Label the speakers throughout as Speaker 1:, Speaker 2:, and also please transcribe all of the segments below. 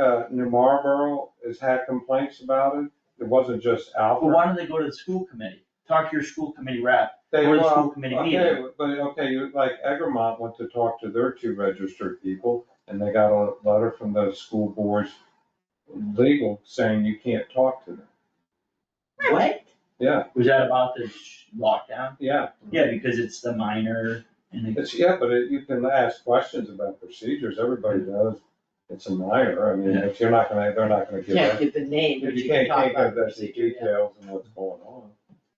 Speaker 1: uh, New Marlboro has had complaints about it. It wasn't just
Speaker 2: But
Speaker 1: Alfred.
Speaker 2: why don't they go to the school committee? Talk to your school committee rep.
Speaker 1: They-
Speaker 2: Or the
Speaker 1: well,
Speaker 2: school committee
Speaker 1: Okay,
Speaker 2: meeting.
Speaker 1: but, okay, you- like Egremont went to talk to their two registered people, and they got a letter from the school board's legal saying you can't talk to them.
Speaker 2: What?
Speaker 1: Yeah,
Speaker 2: Was that about the sh- lockdown?
Speaker 1: yeah,
Speaker 2: Yeah, because it's the minor and the,
Speaker 1: it's, yeah, but it- you can ask questions about procedures, everybody knows it's a minor, I mean, if you're not gonna, they're not gonna give
Speaker 3: Can't
Speaker 1: that.
Speaker 3: give the name,
Speaker 1: If
Speaker 3: but
Speaker 1: you
Speaker 3: you can
Speaker 1: can't,
Speaker 3: talk
Speaker 1: can't
Speaker 3: about
Speaker 1: give
Speaker 3: the
Speaker 1: that the
Speaker 3: procedure, yeah.
Speaker 1: details and what's going on,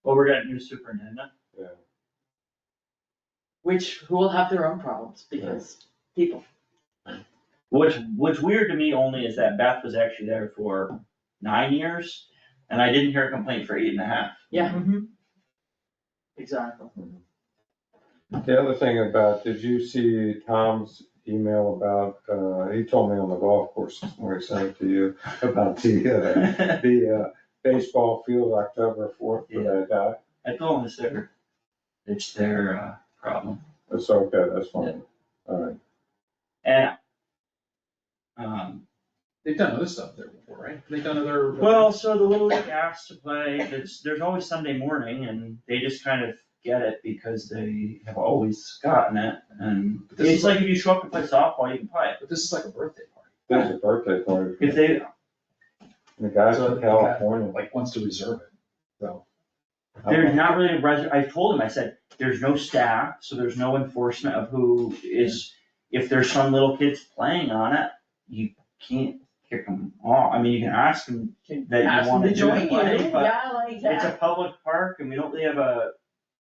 Speaker 2: well, we're getting new superintendent.
Speaker 1: yeah.
Speaker 3: Which, who will have their own problems, because people,
Speaker 2: What's, what's weird to me only is that Beth was actually there for nine years and I didn't hear a complaint for eight and a half.
Speaker 3: yeah. Exactly.
Speaker 1: The other thing about, did you see Tom's email about, uh, he told me on the golf course this morning, he sent it to you, about the, uh, the, uh, baseball field October fourth for that guy?
Speaker 2: I told them it's their, it's their, uh, problem.
Speaker 1: That's okay, that's fine, alright.
Speaker 2: And, um,
Speaker 4: They've done other stuff there before, right? They've done other.
Speaker 2: Well, so the Little League asks to play, it's, there's always Sunday morning and they just kind of get it because they have always gotten it. And
Speaker 4: But this
Speaker 2: it's
Speaker 4: is like,
Speaker 2: like if you show up to play softball, you can play.
Speaker 4: but this is like a birthday party.
Speaker 1: There's a birthday party.
Speaker 2: If they,
Speaker 1: The guy's
Speaker 4: So
Speaker 1: from
Speaker 4: the guy-
Speaker 1: California,
Speaker 4: Like wants to reserve it, so.
Speaker 2: there's not really a res, I told him, I said, there's no staff, so there's no enforcement of who is, if there's some little kids playing on it, you can't kick them off. I mean, you can ask them that
Speaker 3: Ask
Speaker 2: you
Speaker 3: them
Speaker 2: wanna
Speaker 3: to
Speaker 2: do
Speaker 3: join
Speaker 2: it,
Speaker 3: you,
Speaker 2: play, but
Speaker 3: yeah, like
Speaker 2: It's a
Speaker 3: that.
Speaker 2: public park and we don't really have a,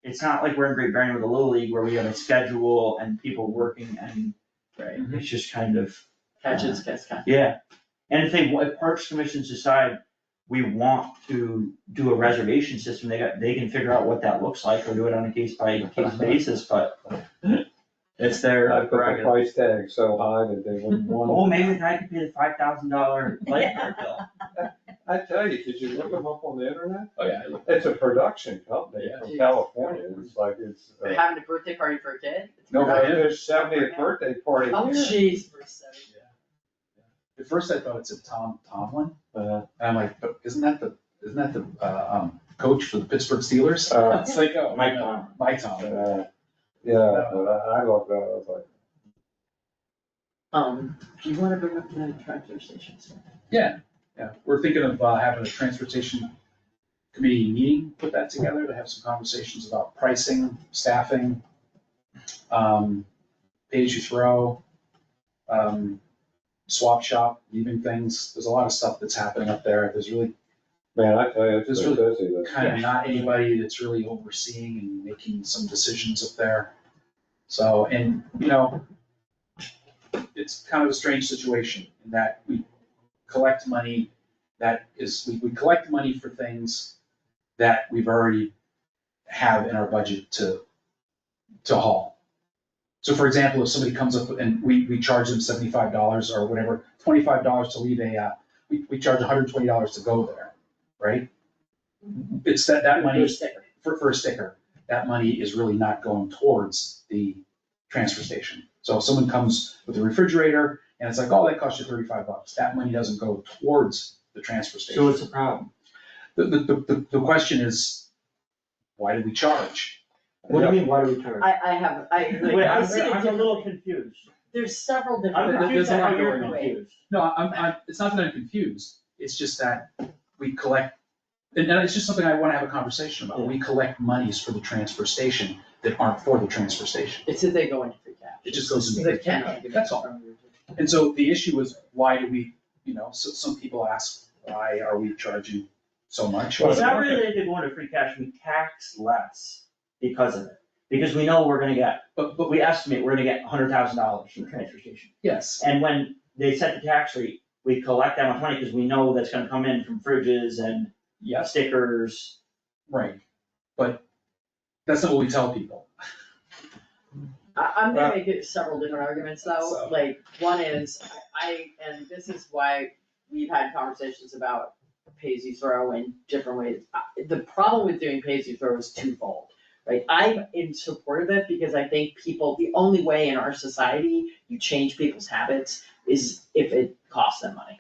Speaker 2: it's not like we're in Great Barrington with the Little League where we have a schedule and people working and
Speaker 3: Right.
Speaker 2: it's just kind of,
Speaker 3: Catch and kiss, catch.
Speaker 2: yeah. And if they, if Parks Commissions decide we want to do a reservation system, they got, they can figure out what that looks like or do it on a case by case basis, but it's their
Speaker 1: I put the
Speaker 2: prerogative.
Speaker 1: price tag so high that they wouldn't want,
Speaker 2: Oh, maybe I could pay the five thousand dollar light card bill.
Speaker 1: I tell you, did you look them up on the internet?
Speaker 4: Oh, yeah, I looked-
Speaker 1: It's a production company
Speaker 4: Yeah.
Speaker 1: from California, it's like, it's, uh,
Speaker 3: Having a birthday party for a kid? It's
Speaker 1: no, but
Speaker 3: great.
Speaker 1: there's seventieth birthday party
Speaker 3: Oh,
Speaker 1: here.
Speaker 3: jeez, for seven.
Speaker 4: at first I thought it's a Tom Tomlin,
Speaker 1: Uh,
Speaker 4: and I'm like, but isn't that the, isn't that the, uh, um, coach for the Pittsburgh Steelers?
Speaker 1: uh,
Speaker 4: It's like, oh,
Speaker 2: Mike
Speaker 4: Mike Tom,
Speaker 2: Tomlin.
Speaker 4: Mike Tomlin.
Speaker 1: Uh, Yeah, but I, I love that, I was like,
Speaker 3: Um, do you wanna bring up the transfer station?
Speaker 4: Yeah, we're thinking of uh, having a transportation committee meeting, put that together to have some conversations about pricing, staffing, um, page you throw, um, swap shop, even things. There's a lot of stuff that's happening up there. There's really
Speaker 1: man, I tell you, it's
Speaker 4: It's
Speaker 1: so busy, that-
Speaker 4: kind of not anybody that's really overseeing and making some decisions up there. So, and, you know, it's kind of a strange situation in that we collect money that is, we, we collect money for things that we've already have in our budget to, to haul. So for example, if somebody comes up and we, we charge them seventy-five dollars or whatever, twenty-five dollars to leave a, uh, we, we charge hundred and twenty dollars to go there, right? It's that, that money
Speaker 3: Your sticker.
Speaker 4: for, for a sticker, that money is really not going towards the transfer station. So if someone comes with a refrigerator and it's like, oh, that cost you thirty-five bucks, that money doesn't go towards the transfer station.
Speaker 2: So it's a problem.
Speaker 4: The, the, the- the, the question is, why do we charge?
Speaker 2: What do you mean, why do we turn?
Speaker 3: I, I have, I,
Speaker 2: Wait,
Speaker 3: I
Speaker 2: I'm,
Speaker 3: see it
Speaker 2: I'm a
Speaker 3: different-
Speaker 2: little confused.
Speaker 3: there's several
Speaker 2: I'm
Speaker 3: different.
Speaker 2: confused at how
Speaker 3: There's a lot
Speaker 2: you're
Speaker 3: going on.
Speaker 2: confused.
Speaker 4: No, I'm, I'm, it's not that I'm confused, it's just that we collect, and, and it's just something I wanna have a conversation about. We collect monies for the transfer station that aren't for the transfer station.
Speaker 3: It's that they go into free cash.
Speaker 4: It just goes into.
Speaker 3: The cash.
Speaker 4: That's all. And so the issue is, why do we, you know, so some people ask, why are we charging so much?
Speaker 1: Well,
Speaker 2: It's not really that they go into free cash, we tax less because of it, because we know we're gonna get,
Speaker 4: But,
Speaker 2: but
Speaker 4: but,
Speaker 2: we estimate we're gonna get hundred thousand dollars from the transfer station.
Speaker 4: yes,
Speaker 2: And when they set the tax rate, we collect that much money, because we know that's gonna come in from fridges and
Speaker 4: yes,
Speaker 2: stickers.
Speaker 4: right, but that's not what we tell people.
Speaker 3: I, I'm
Speaker 1: Uh,
Speaker 3: gonna make it several different arguments though,
Speaker 4: So-
Speaker 3: like, one is, I, I- and this is why we've had conversations about pay as you throw in different ways. I- The problem with doing pay as you throw is twofold, right? I'm in support of it because I think people, the only way in our society you change people's habits is if it costs them money.